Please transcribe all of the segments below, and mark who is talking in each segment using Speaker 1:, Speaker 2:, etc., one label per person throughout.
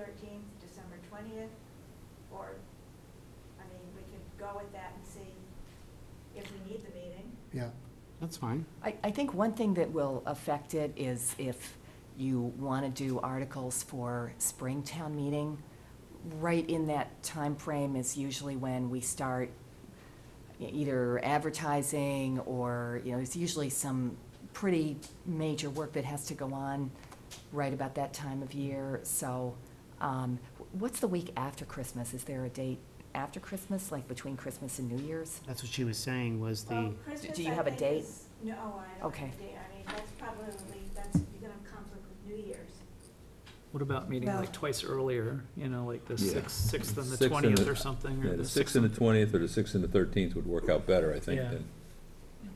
Speaker 1: thirteenth, December twentieth, or, I mean, we could go with that and see if we need the meeting.
Speaker 2: Yeah,
Speaker 3: That's fine.
Speaker 4: I, I think one thing that will affect it is if you want to do articles for spring town meeting, right in that time frame is usually when we start e- either advertising or, you know, there's usually some pretty major work that has to go on right about that time of year. So, um, wh- what's the week after Christmas? Is there a date after Christmas, like between Christmas and New Year's?
Speaker 3: That's what she was saying, was the,
Speaker 1: Well, Christmas,
Speaker 4: do you
Speaker 1: I
Speaker 4: have a
Speaker 1: think,
Speaker 4: date?
Speaker 1: is- No, I don't
Speaker 4: Okay.
Speaker 1: have a date, I mean, that's probably, that's, you're gonna have conflict with New Year's.
Speaker 5: What about meeting
Speaker 4: No.
Speaker 5: like twice earlier, you know, like the
Speaker 6: Yeah.
Speaker 5: sixth, sixth and the
Speaker 6: Sixth and
Speaker 5: twentieth
Speaker 6: the-
Speaker 5: or something?
Speaker 6: Yeah,
Speaker 5: or
Speaker 6: the sixth and the twentieth or the sixth and the thirteenth would work out better, I think,
Speaker 5: Yeah.
Speaker 6: than,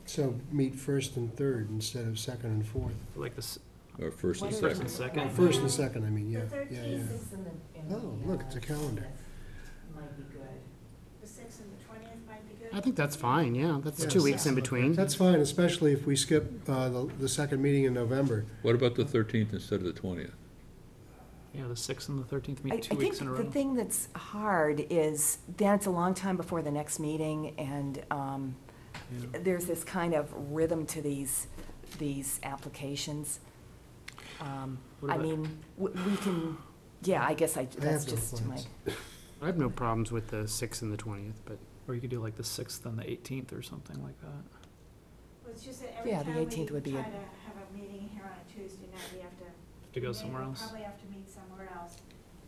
Speaker 2: so meet first and third instead of second and fourth.
Speaker 5: Like the, s-
Speaker 6: or first and
Speaker 4: What
Speaker 5: first
Speaker 6: second.
Speaker 5: and
Speaker 2: Well,
Speaker 5: second?
Speaker 2: first and second, I mean, yeah,
Speaker 1: The
Speaker 2: yeah, yeah.
Speaker 1: 13th
Speaker 4: in the- in
Speaker 2: Oh,
Speaker 4: the,
Speaker 2: look,
Speaker 4: uh,
Speaker 2: it's a calendar.
Speaker 4: Might be good.
Speaker 1: The sixth and the twentieth might be good.
Speaker 3: I think that's fine, yeah, that's
Speaker 2: Yeah,
Speaker 3: two weeks in
Speaker 2: that's-
Speaker 3: between.
Speaker 2: That's fine, especially if we skip uh, the, the second meeting in November.
Speaker 6: What about the thirteenth instead of the twentieth?
Speaker 5: Yeah, the sixth and the thirteenth
Speaker 4: I I
Speaker 5: meet two
Speaker 4: think
Speaker 5: weeks in a row.
Speaker 4: the thing that's hard is, then it's a long time before the next meeting, and um,
Speaker 5: Yeah.
Speaker 4: there's this kind of rhythm to these, these applications. Um,
Speaker 5: What
Speaker 4: I
Speaker 5: about-
Speaker 4: mean, w- we can, yeah, I guess I,
Speaker 2: I
Speaker 4: that's
Speaker 2: have no
Speaker 4: just my,
Speaker 2: plans.
Speaker 3: I have no problems with the sixth and the twentieth, but
Speaker 5: Or you could do like the sixth and the eighteenth or something like that.
Speaker 1: Well, it's just that every
Speaker 4: Yeah,
Speaker 1: time
Speaker 4: the
Speaker 1: we
Speaker 4: 18th would be
Speaker 1: try
Speaker 4: it.
Speaker 1: to have a meeting here on a Tuesday night, we have to
Speaker 5: To
Speaker 1: We
Speaker 5: go
Speaker 1: may
Speaker 5: somewhere else.
Speaker 1: Probably have to meet somewhere else,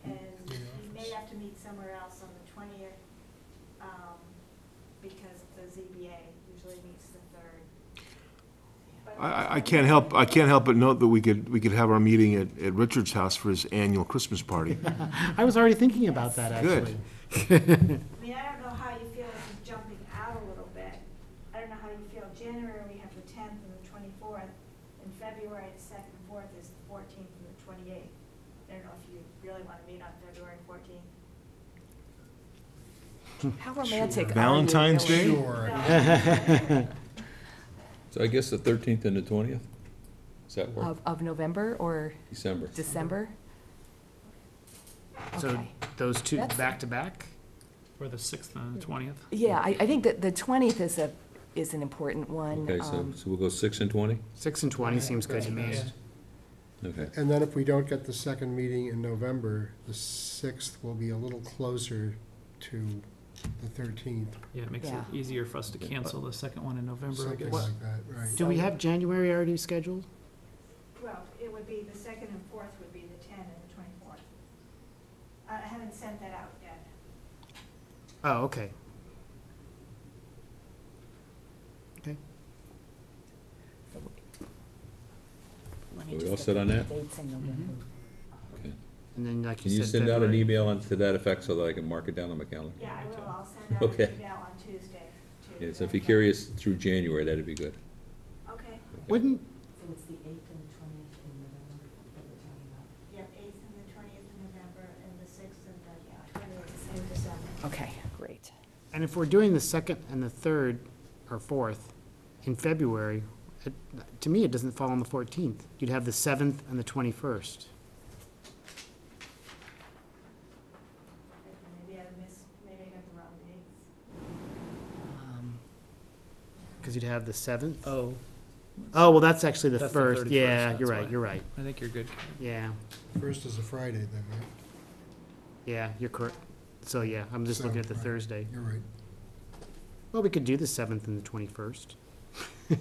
Speaker 1: and
Speaker 2: the
Speaker 1: we may
Speaker 2: office.
Speaker 1: have to meet somewhere else on the twentieth, um, because the ZBA usually meets the third. But
Speaker 7: I- I, I can't help, I can't help but note that we could, we could have our meeting at, at Richard's house for his annual Christmas party.
Speaker 3: I was already thinking about that,
Speaker 7: Good.
Speaker 3: actually.
Speaker 1: I mean, I don't know how you feel, this is jumping out a little bit, I don't know how you feel, January, we have the tenth and the twenty-fourth, in February, the second and fourth is the fourteenth and the twenty-eighth. I don't know if you really wanna meet on February fourteenth.
Speaker 4: how romantic are you?
Speaker 7: Valentine's Day?
Speaker 4: really?
Speaker 2: Sure.
Speaker 6: So I guess the thirteenth and the twentieth? Does that work?
Speaker 4: Of, of November or
Speaker 6: December.
Speaker 4: December?
Speaker 3: So
Speaker 4: Okay.
Speaker 3: those two
Speaker 4: That's-
Speaker 3: back to back?
Speaker 5: Or the sixth and the twentieth.
Speaker 4: Yeah, I, I think that the twentieth is a, is an important one.
Speaker 6: Okay, so,
Speaker 4: um,
Speaker 6: so we'll go six and twenty?
Speaker 3: Six and twenty seems good to me.
Speaker 5: Yeah.
Speaker 6: Okay.
Speaker 2: And then if we don't get the second meeting in November, the sixth will be a little closer to the thirteenth,
Speaker 5: Yeah, it makes it
Speaker 4: Yeah.
Speaker 5: easier for us to cancel the second one in November, I
Speaker 2: something
Speaker 5: guess.
Speaker 2: like that, right?
Speaker 3: Do we have January already scheduled?
Speaker 1: Well, it would be, the second and fourth would be the ten and the twenty-fourth. I I haven't sent that out yet.
Speaker 3: Oh, okay. Okay.
Speaker 4: let me
Speaker 6: Are we
Speaker 4: just
Speaker 6: all
Speaker 4: get
Speaker 6: set on
Speaker 4: the
Speaker 6: that?
Speaker 4: dates in November.
Speaker 3: And then, like
Speaker 6: Can
Speaker 3: you
Speaker 6: you
Speaker 3: said.
Speaker 6: send out an
Speaker 3: February.
Speaker 6: email on- to that effect so that I can mark it down on my calendar?
Speaker 1: Yeah, I will, I'll send out
Speaker 6: Okay.
Speaker 1: an email on Tuesday. to-
Speaker 6: Yeah, so if you're curious through January, that'd be good.
Speaker 1: Okay,
Speaker 3: Wouldn't,
Speaker 4: So it's the eighth and twentieth in November that we're talking about?
Speaker 1: yep, eighth and the twentieth of November, and the sixth and the twentieth of December.
Speaker 4: Okay, great.
Speaker 3: and if we're doing the second and the third, or fourth, in February, it- to me, it doesn't fall on the fourteenth. You'd have the seventh and the twenty-first.
Speaker 1: Maybe I missed, maybe I got the wrong dates.
Speaker 4: Um,
Speaker 3: Because you'd have the seventh.
Speaker 5: Oh,
Speaker 3: Oh, well, that's actually the
Speaker 5: That's the
Speaker 3: first.
Speaker 5: 31st,
Speaker 3: Yeah, you're
Speaker 5: that's
Speaker 3: right,
Speaker 5: why.
Speaker 3: you're right.
Speaker 5: I think you're good.
Speaker 3: Yeah,
Speaker 2: First is a Friday then, right?
Speaker 3: yeah, you're correct. So, yeah, I'm just looking
Speaker 2: So,
Speaker 3: at the
Speaker 2: right.
Speaker 3: Thursday.
Speaker 2: You're right.
Speaker 3: Well, we could do the seventh and the twenty-first.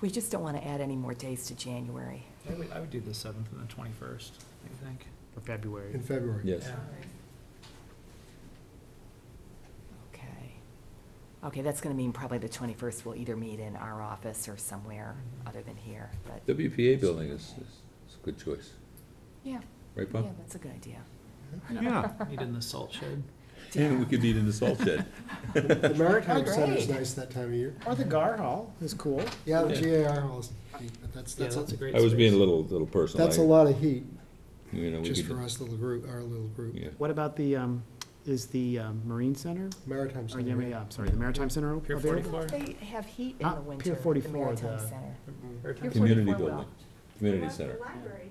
Speaker 4: We just don't want to add any more days to January.
Speaker 5: I would, I would do the seventh and the twenty-first, I think.
Speaker 3: For February.
Speaker 2: In February.
Speaker 6: Yes.
Speaker 4: Okay. Okay, that's going to mean probably the twenty-first we'll either meet in our office or somewhere other than here, but,
Speaker 6: WPA building is, is is a good choice,
Speaker 4: yeah,
Speaker 6: right,
Speaker 4: yeah,
Speaker 6: Bob?
Speaker 4: that's a good idea.
Speaker 7: Yeah.
Speaker 5: Meet in the salt shed.
Speaker 6: Yeah, we could meet in the salt shed.
Speaker 2: The Maritime Center's
Speaker 4: Great.
Speaker 2: nice that time of year.
Speaker 3: Or the Gar Hall is cool.
Speaker 2: Yeah, the
Speaker 6: Yeah.
Speaker 2: GAR halls, but that's,
Speaker 5: Yeah,
Speaker 2: that's,
Speaker 5: that's a
Speaker 2: a-
Speaker 5: great.
Speaker 6: I was being a
Speaker 5: space.
Speaker 6: little, little personal.
Speaker 2: that's
Speaker 6: I-
Speaker 2: a lot of heat,
Speaker 6: You know, we
Speaker 2: just
Speaker 6: could-
Speaker 2: for us little group, our little group.
Speaker 6: Yeah.
Speaker 3: What about the, um, is the um, Marine Center?
Speaker 2: Maritime
Speaker 3: Or,
Speaker 2: Center.
Speaker 3: Oh, yeah,
Speaker 2: right?
Speaker 3: yeah, I'm sorry, the Maritime Center
Speaker 5: Pier
Speaker 3: available?
Speaker 5: 44. Or-
Speaker 4: They have heat in
Speaker 3: Not
Speaker 4: the
Speaker 3: Uh, Pier
Speaker 4: winter, the
Speaker 3: 44,
Speaker 4: Maritime
Speaker 3: the-
Speaker 4: Center.
Speaker 5: Or-
Speaker 4: Pier
Speaker 6: Community
Speaker 4: 44 will.
Speaker 6: building, community
Speaker 1: What about
Speaker 6: center.
Speaker 1: the library?